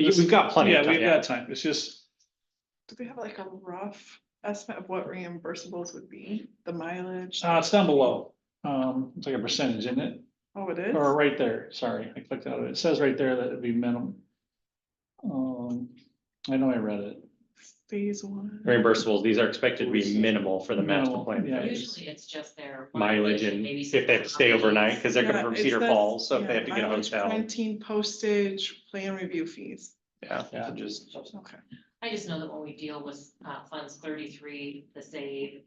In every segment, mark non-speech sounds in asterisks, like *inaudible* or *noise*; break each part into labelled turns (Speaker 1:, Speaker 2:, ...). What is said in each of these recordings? Speaker 1: Yeah, We've got plenty of
Speaker 2: Yeah,
Speaker 1: time,
Speaker 2: we've
Speaker 1: yeah.
Speaker 2: got time. It's just,
Speaker 3: Do we have like a rough estimate of what reimbursables would be, the mileage?
Speaker 2: uh, it's down below. Um, it's like a percentage, isn't it?
Speaker 3: Oh, it is?
Speaker 2: Or right there, sorry, I clicked out of it. It says right there that it'd be minimum. Um, I know I read it.
Speaker 3: Phase one.
Speaker 1: Reimbursables, these are expected to be minimal for the master
Speaker 2: Minimal,
Speaker 1: plan.
Speaker 2: yeah.
Speaker 4: Usually it's just their.
Speaker 1: Mileage and
Speaker 4: maybe
Speaker 1: if they have to stay
Speaker 4: some
Speaker 1: overnight, because they're
Speaker 3: Yeah,
Speaker 1: coming from
Speaker 3: it
Speaker 1: Cedar
Speaker 3: says-
Speaker 1: Falls, so if they
Speaker 3: yeah,
Speaker 1: have to get a
Speaker 3: mileage,
Speaker 1: hotel,
Speaker 3: Quarantine postage, plan review fees.
Speaker 1: yeah,
Speaker 2: Yeah.
Speaker 1: so just.
Speaker 3: Okay.
Speaker 4: I just know that when we deal with uh funds thirty-three, the save,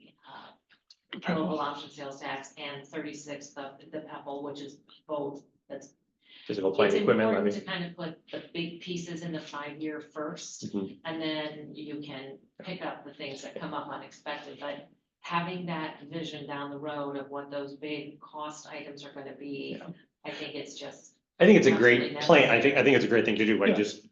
Speaker 4: uh, local option sales tax and thirty-six, the the PEPAL, which is both. That's
Speaker 1: Physical
Speaker 4: it's
Speaker 1: plant equipment
Speaker 4: important to
Speaker 1: levy.
Speaker 4: kind of put the big pieces in the five-year first.
Speaker 1: Mhm.
Speaker 4: And then you can pick up the things that come up unexpected, but having that vision down the road of what those big cost items are gonna be.
Speaker 1: Yeah.
Speaker 4: I think it's just,
Speaker 1: I think it's a
Speaker 4: Absolutely
Speaker 1: great
Speaker 4: not.
Speaker 1: plan. I think, I think it's a great thing to do, like
Speaker 2: Yeah.
Speaker 1: just,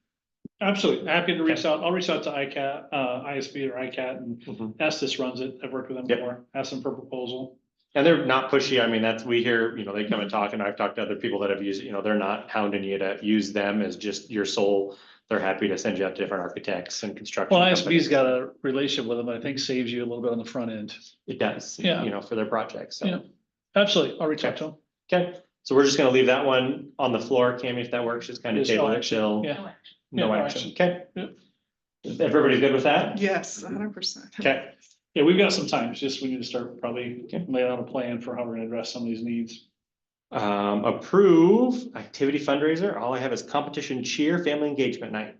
Speaker 2: Absolutely. Happy to reach out. I'll reach out to ICAT, uh, ISB or ICAT and
Speaker 1: Mhm.
Speaker 2: Estes runs it. I've worked with them
Speaker 1: Yep.
Speaker 2: before. Ask them for proposal.
Speaker 1: and they're not pushy. I mean, that's, we hear, you know, they come and talk and I've talked to other people that have used, it, you know, they're not hounding you to use them as just your sole. They're happy to send you out to different architects and construction.
Speaker 2: Well,
Speaker 1: companies.
Speaker 2: ISB's got a relationship with them, that I think saves you a little bit on the front end.
Speaker 1: It does,
Speaker 2: Yeah.
Speaker 1: you know, for their projects,
Speaker 2: Yeah.
Speaker 1: so.
Speaker 2: Absolutely. I'll reach out to them.
Speaker 1: Okay, so we're just gonna leave that one on the floor, Cammy, if that works, just kind of
Speaker 2: Just no
Speaker 1: table it
Speaker 2: action,
Speaker 1: till,
Speaker 2: yeah. Yeah,
Speaker 1: no
Speaker 2: no
Speaker 1: action, okay?
Speaker 2: Yep.
Speaker 1: Everybody good with that?
Speaker 3: Yes, hundred percent.
Speaker 1: Okay,
Speaker 2: Yeah, we've got some time. It's just we need to start probably
Speaker 1: Okay.
Speaker 2: laying out a plan for how we're gonna address some of these needs.
Speaker 1: um, approve activity fundraiser, all I have is competition cheer, family engagement night.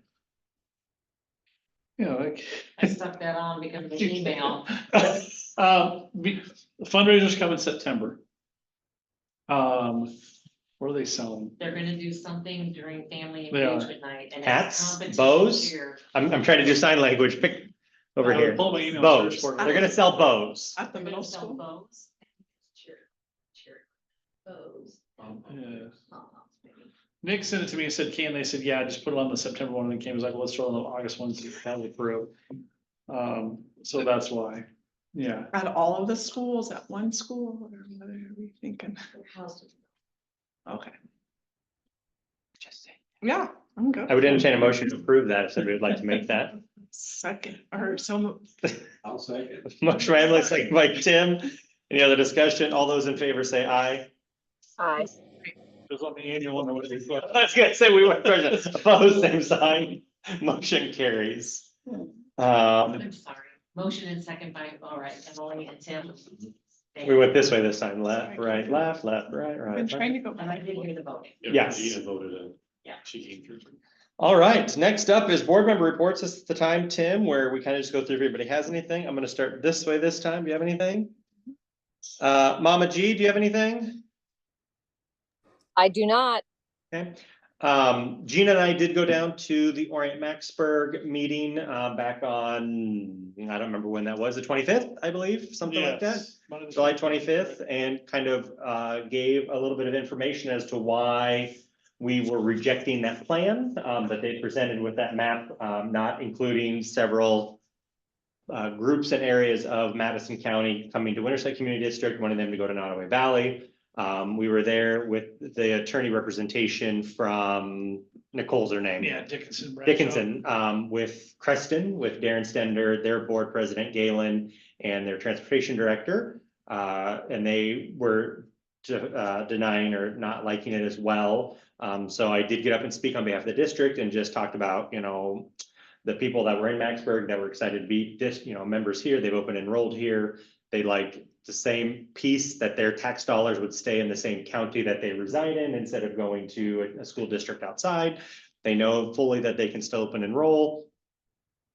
Speaker 2: Yeah, like.
Speaker 4: I stuck that on because of the email.
Speaker 2: *laughs* Uh, we- fundraisers come in September. Um, where are they selling?
Speaker 4: They're gonna do something during family
Speaker 2: They are.
Speaker 4: engagement night and. it's
Speaker 1: Hats,
Speaker 4: competition
Speaker 1: bows?
Speaker 4: cheer.
Speaker 1: I'm, I'm trying to do sign language, pick over
Speaker 2: I
Speaker 1: here,
Speaker 2: pulled my email
Speaker 1: bows,
Speaker 2: search for it.
Speaker 1: they're gonna sell bows.
Speaker 3: At the
Speaker 4: They're
Speaker 3: middle
Speaker 4: gonna sell
Speaker 3: school.
Speaker 4: bows. Cheer, cheer, bows.
Speaker 2: Um, Yeah.
Speaker 4: Oh, maybe.
Speaker 2: Nick sent it to me and said, can, they said, yeah, just put it on the September one, and it came, he's like, let's throw it on the August one, so that would throw. Um, so that's why, yeah,
Speaker 3: At all of the schools, at one school, or what are we thinking? Okay. Yeah, I'm good.
Speaker 1: I would entertain a motion to approve that, if somebody would like to make that. *laughs*
Speaker 3: Second, or so,
Speaker 5: I'll say it.
Speaker 1: Motion by Emily, second by Tim, any other discussion, all those in favor say aye.
Speaker 2: it was on the annual one, or what it was.
Speaker 1: *laughs* I was gonna say, we went first, opposed, same sign, motion carries. Um,
Speaker 4: I'm sorry. Motion and second by, all right, Emily and Tim. Thank
Speaker 1: we
Speaker 4: you.
Speaker 1: went this way this time, left, right, left, left, right,
Speaker 3: I'm
Speaker 1: right, right.
Speaker 3: trying to go.
Speaker 4: And I
Speaker 3: back.
Speaker 4: didn't hear the voting.
Speaker 1: Yes.
Speaker 5: Gina voted in.
Speaker 4: Yeah.
Speaker 5: She came through.
Speaker 1: All right, next up is board member reports. This is the time, Tim, where we kind of just go through if anybody has anything. I'm gonna start this way this time. Do you have anything? Uh, Mama G, do you have anything?
Speaker 6: I do not.
Speaker 1: Okay. Um, Gina and I did go down to the Orient Maxburg meeting, uh, back on, I don't remember when that was, the twenty-fifth, I believe, something like that.
Speaker 2: Yes, one of the-
Speaker 1: July twenty-fifth, and kind of uh, gave a little bit of information as to why we were rejecting that plan um, that they presented with that map, um, not including several uh, groups and areas of Madison County coming to Winterset Community District, wanting them to go to Nottaway Valley. Um, We were there with the attorney representation from Nicole's her name.
Speaker 2: Yeah, Dickinson. Bradshaw.
Speaker 1: Dickinson, um, with Creston, with Darren Stender, their board president Galen, and their transportation director. Uh, and they were de- uh, denying or not liking it as well. Um, so I did get up and speak on behalf of the district and just talked about, you know, the people that were in Maxburg that were excited to be just, you know, members here, they've opened enrolled here. They like the same piece that their tax dollars would stay in the same county that they reside in instead of going to a- a school district outside. They know fully that they can still open and roll.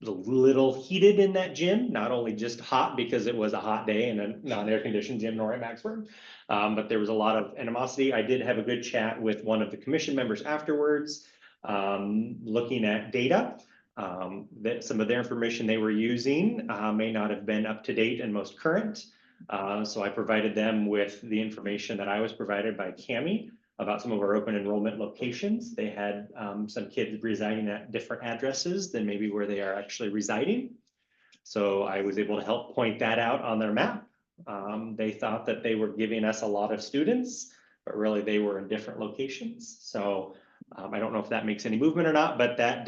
Speaker 1: A little heated in that gym, not only just hot because it was a hot day in a non-air conditioned gym nor at Maxford. Um, but there was a lot of animosity. I did have a good chat with one of the commission members afterwards. um, looking at data, um, that some of their information they were using, uh, may not have been up to date and most current. Uh, so I provided them with the information that I was provided by Cami about some of our open enrollment locations. They had um, some kids residing at different addresses than maybe where they are actually residing. So I was able to help point that out on their map. Um, They thought that they were giving us a lot of students, but really they were in different locations. So um, I don't know if that makes any movement or not, but that